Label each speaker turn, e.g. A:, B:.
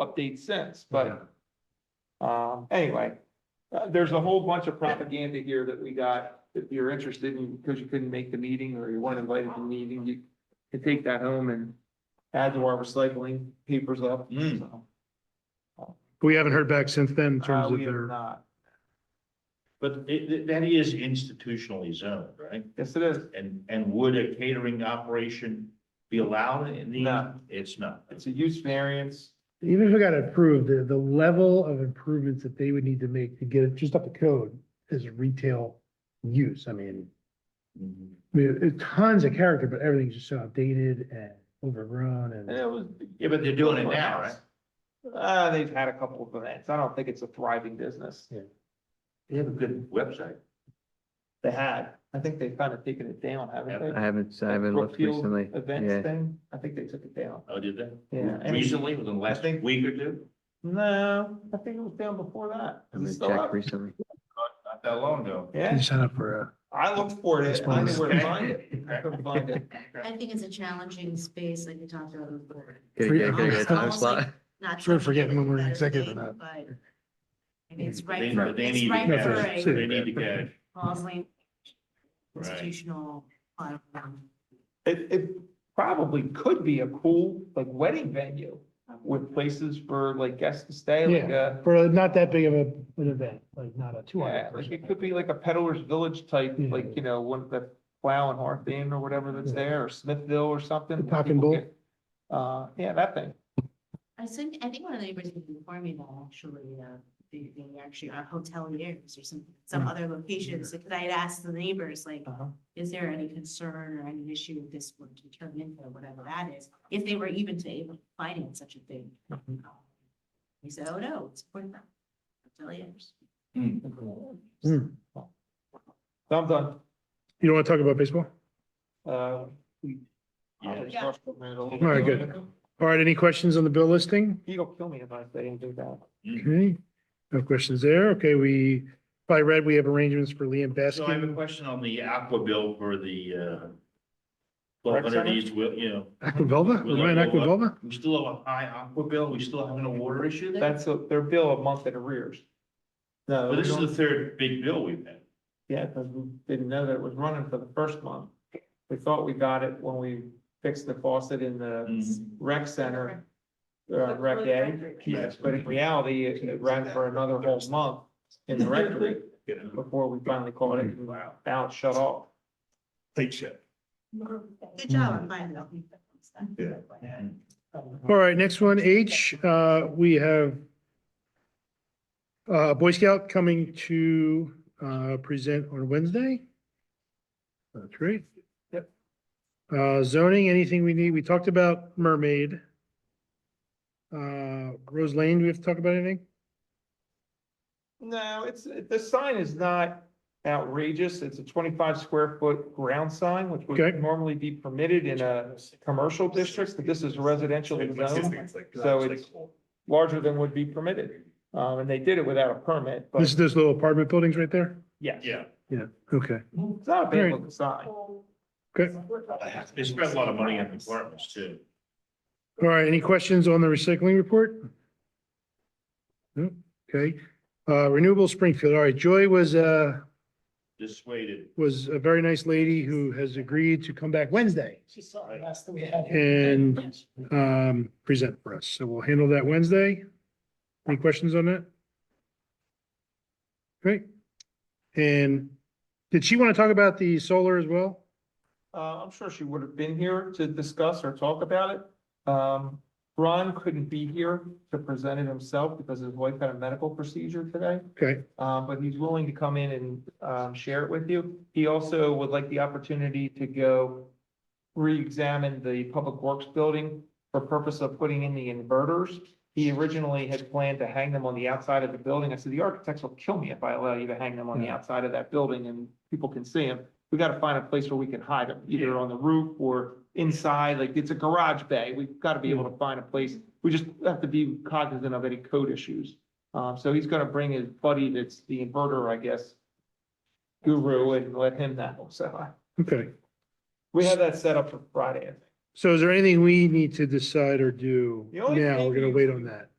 A: updates since, but um, anyway. Uh, there's a whole bunch of propaganda here that we got, if you're interested in, because you couldn't make the meeting or you weren't invited to the meeting, you can take that home and add to our recycling papers up,
B: Hmm.
A: so.
C: We haven't heard back since then in
A: Uh,
C: terms of
A: we have
C: their,
A: not,
B: But it, it- that is institutionally zoned, right?
A: yes, it is,
B: And, and would a catering operation be allowed in the?
A: No.
B: It's not.
A: it's a use variance.
C: even if we got it approved, the, the level of improvements that they would need to make to get it just up to code is retail use. I mean,
B: Mhm.
C: I mean, it's tons of character, but everything's just so outdated and overgrown
A: And it
C: and
A: was.
B: Yeah, but they're doing it now, right?
A: Uh, they've had a couple of events. I don't think it's a thriving business.
B: They have a good website.
A: They had, I think they've kind of taken it down, haven't they?
D: I haven't, I
A: That
D: haven't looked
A: Brookfield
D: recently.
A: Events
D: Yeah,
A: thing, I think they took it down.
B: Oh, did they?
A: Yeah, and-
B: Recently, within the last
A: think-
B: week or two?
A: No, I think it was down before that. Is it
D: I haven't
A: still up?
D: checked recently.
B: Not that long ago.
C: you
A: Yeah,
C: sign up for a.
A: I looked for it. I didn't know where to find it. I couldn't find it.
E: I think it's a challenging space, like we talked about before.
D: Gotta
C: Free-
D: get- gotta get a time
E: Almost
D: slot.
E: like- Not
C: Sure,
E: trying to
C: forget
E: get
C: when we're in
E: better
C: executive or
E: thing,
C: not.
E: But I mean, it's
B: They-
E: right for,
B: they
E: it's
B: need
E: right
B: to
C: No,
E: for
C: for
B: cash.
C: sure.
B: They
E: a
B: need to cash.
E: Roslyn
B: Right.
E: institutional platform.
A: It, it probably could be a cool, like, wedding venue with places for, like, guests to stay, like, uh,
C: For not that big of a, an event, like not a two
A: Yeah,
C: hundred
A: like
C: person.
A: it could be like a peddler's village type,
C: Yeah.
A: like, you know, one of the Plow and Hearth Inn or whatever that's
C: Yeah.
A: there, or Smithville or something.
C: The
A: where
C: Cock and
A: people
C: Bull?
A: get- Uh, yeah, that thing.
E: I think, I think one of the neighbors informed me that actually, uh, they, they actually are hoteliers or some, some
C: Hmm.
E: other locations. Because I had asked the neighbors, like,
A: Uh-huh.
E: is there any concern or any issue with this would be turned into whatever that is? If they were even to able to finance such a thing.
A: Mhm.
E: He said, oh, no, it's for them. Hoteliers.
C: Hmm.
A: So I'm done.
C: You don't want to talk about baseball?
A: Uh, we- I'll
B: Yeah.
A: just rush for a minute, a little
C: All right,
A: bit.
C: All right, any questions on the bill listing?
A: He'll kill me if I say and do that.
B: Hmm.
C: Okay, no questions there. Okay, we, by red, we have arrangements for Liam
B: So I have a
C: Baskin.
B: question on the aqua bill for the, uh, twelve hundred
A: center?
B: East, Wil- you know,
C: Aquavulva,
B: Was
C: Ryan
B: that-
C: Aquavulva?
B: we still have a high aqua bill, we still having a water issue there?
A: That's a- their bill a month in arrears. No,
B: Well,
A: we
B: this is
A: don't-
B: the third big bill we've had.
A: yeah, because we didn't know that it was running for the first month. We thought we got it when we fixed the faucet in the rec center, uh, rec day. Yes, but in reality, it it ran for another whole month in the rectory before we finally called it and now it's shut off.
B: Take shit.
E: Good job on finding out.
B: Yeah.
C: All right, next one, H, uh, we have uh, Boy Scout coming to, uh, present on Wednesday. That's great.
A: Yep.
C: Uh, zoning, anything we need? We talked about Mermaid. Uh, Rose Lane, do we have to talk about anything?
A: No, it's, the sign is not outrageous. It's a twenty-five square foot ground sign, which would
C: Okay.
A: normally be permitted in a commercial district, but this is residential zone, so it's larger than would be permitted. Um, and they did it without a permit,
C: This,
A: but
C: those little apartment buildings right there?
A: yes,
B: Yeah,
C: Okay,
A: it's not a bad looking sign.
C: good.
B: they spent a lot of money on apartments too.
C: All right, any questions on the recycling report? No, okay, uh, renewable Springfield, all right, Joy was, uh,
B: Dissuaded.
C: was a very nice lady who has agreed to come back Wednesday
F: She saw the last that we had.
C: and, um, present for us, so we'll handle that Wednesday. Any questions on that? Great, and did she want to talk about the solar as well?
A: Uh, I'm sure she would have been here to discuss or talk about it. Um, Ron couldn't be here to present it himself because his wife had a medical procedure today.
C: Okay,
A: Um, but he's willing to come in and, um, share it with you. He also would like the opportunity to go re-examine the Public Works building for purpose of putting in the inverters. He originally had planned to hang them on the outside of the building. I said, the architects will kill me if I allow you to hang them on the outside of that building and people can see them. We gotta find a place where we can hide them, either on the roof or inside, like it's a garage bay. We've gotta be able to find a place. We just have to be cognizant of any code issues. Um, so he's gonna bring his buddy that's the inverter, I guess, guru and let him know. So I-
C: okay,
A: we have that set up for Friday, I think.
C: so is there anything we need to decide or do
A: The only
C: now?
A: thing
C: We're gonna
A: you-
C: wait on that.